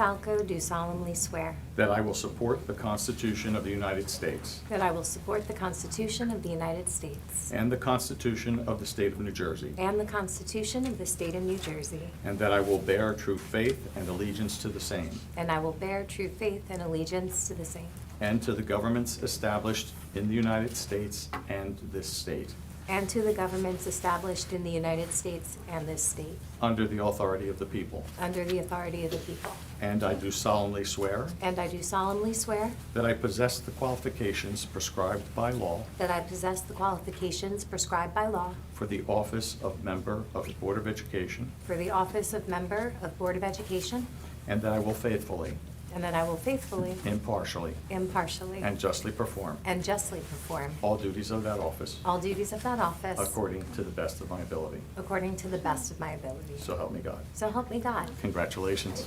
Falco do solemnly swear that I will support the Constitution of the United States that I will support the Constitution of the United States and the Constitution of the State of New Jersey, and the Constitution of the State of New Jersey, and that I will bear true faith and allegiance to the same and I will bear true faith and allegiance to the same and to the governments established in the United States and this state, and to the governments established in the United States and this state, under the authority of the people. under the authority of the people. And I do solemnly swear And I do solemnly swear that I possess the qualifications prescribed by law that I possess the qualifications prescribed by law for the office of member of the Board of Education, for the office of Member of Board of Education, and that I will faithfully, and that I will faithfully, impartially, impartially, and justly perform and justly perform all duties of that office all duties of that office according to the best of my ability. according to the best of my ability. So help me God. So help me God. Congratulations.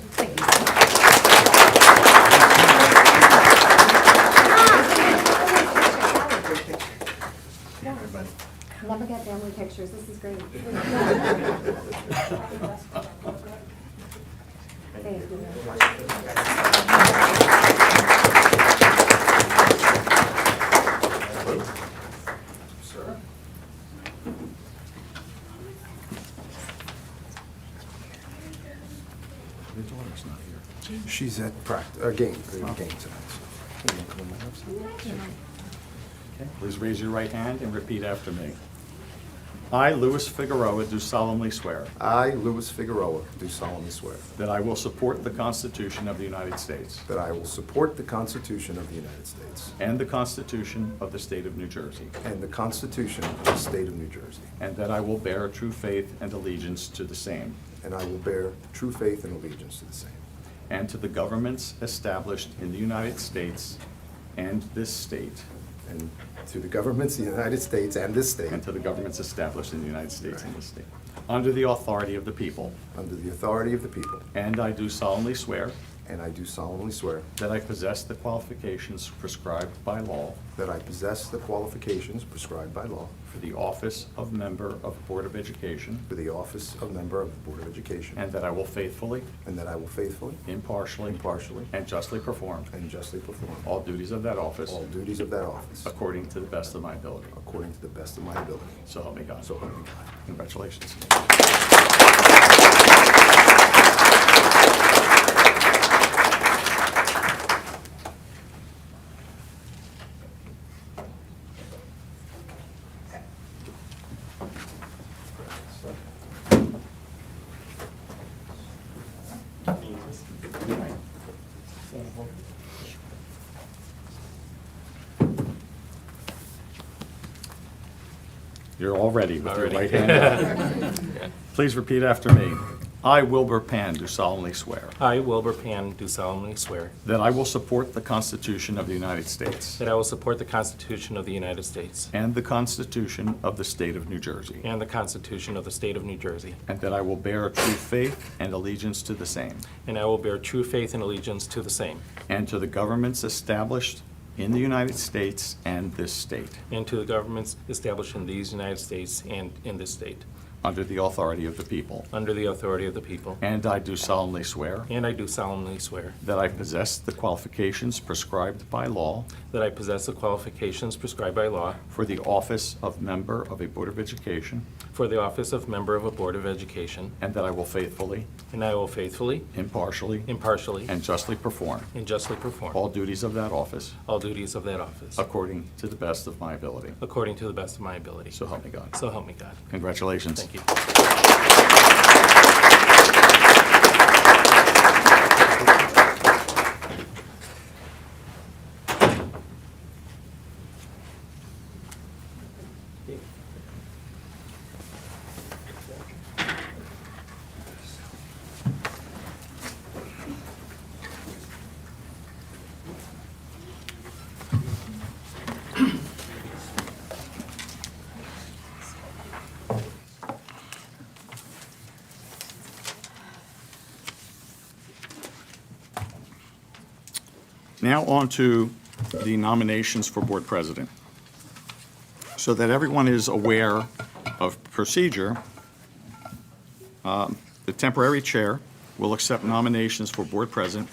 Never get family pictures, this is great. Thank you. Your daughter's not here. She's at practice, uh, game, uh, game tonight. so. Okay, Please raise your right hand and repeat after me. I, Louis Figueroa, do solemnly swear I, Louis Figueroa, do solemnly swear that I will support the Constitution of the United States that I will support the Constitution of the United States and the Constitution of the State of New Jersey, and the Constitution of the State of New Jersey, and that I will bear true faith and allegiance to the same and I will bear true faith and allegiance to the same, and to the governments established in the United States and this state, and to the governments of the United States and this state, and to the governments established in the United States and this state, under the authority of the people. under the authority of the people, And I do solemnly swear and I do solemnly swear that I possess the qualifications prescribed by law that I possess the qualifications prescribed by law for the office of member of Board of Education, for the office of member of the Board of Education, and that I will faithfully, and that I will faithfully impartially, Impartially. and justly perform and justly perform all duties of that office All duties of that office. according to the best of my ability. According to the best of my ability. So help me God. So help me God. Congratulations. You're all ready with your right hand up. Please repeat after me. I, Wilbur Pan, do solemnly swear I, Wilbur Pan, do solemnly swear that I will support the Constitution of the United States that I will support the Constitution of the United States and the Constitution of the State of New Jersey, and the Constitution of the State of New Jersey, and that I will bear true faith and allegiance to the same and I will bear true faith and allegiance to the same, and to the governments established in the United States and this state, and to the governments established in these United States and in this state, under the authority of the people. under the authority of the people. And I do solemnly swear And I do solemnly swear that I possess the qualifications prescribed by law that I possess the qualifications prescribed by law for the office of member of a Board of Education, for the office of member of a Board of Education, and that I will faithfully, and I will faithfully, impartially, impartially, and justly perform and justly perform all duties of that office all duties of that office, according to the best of my ability. according to the best of my ability. So help me God. So help me God. Congratulations. Thank you. Now on to the nominations for Board President. So that everyone is aware of procedure, um, the temporary chair will accept nominations for board president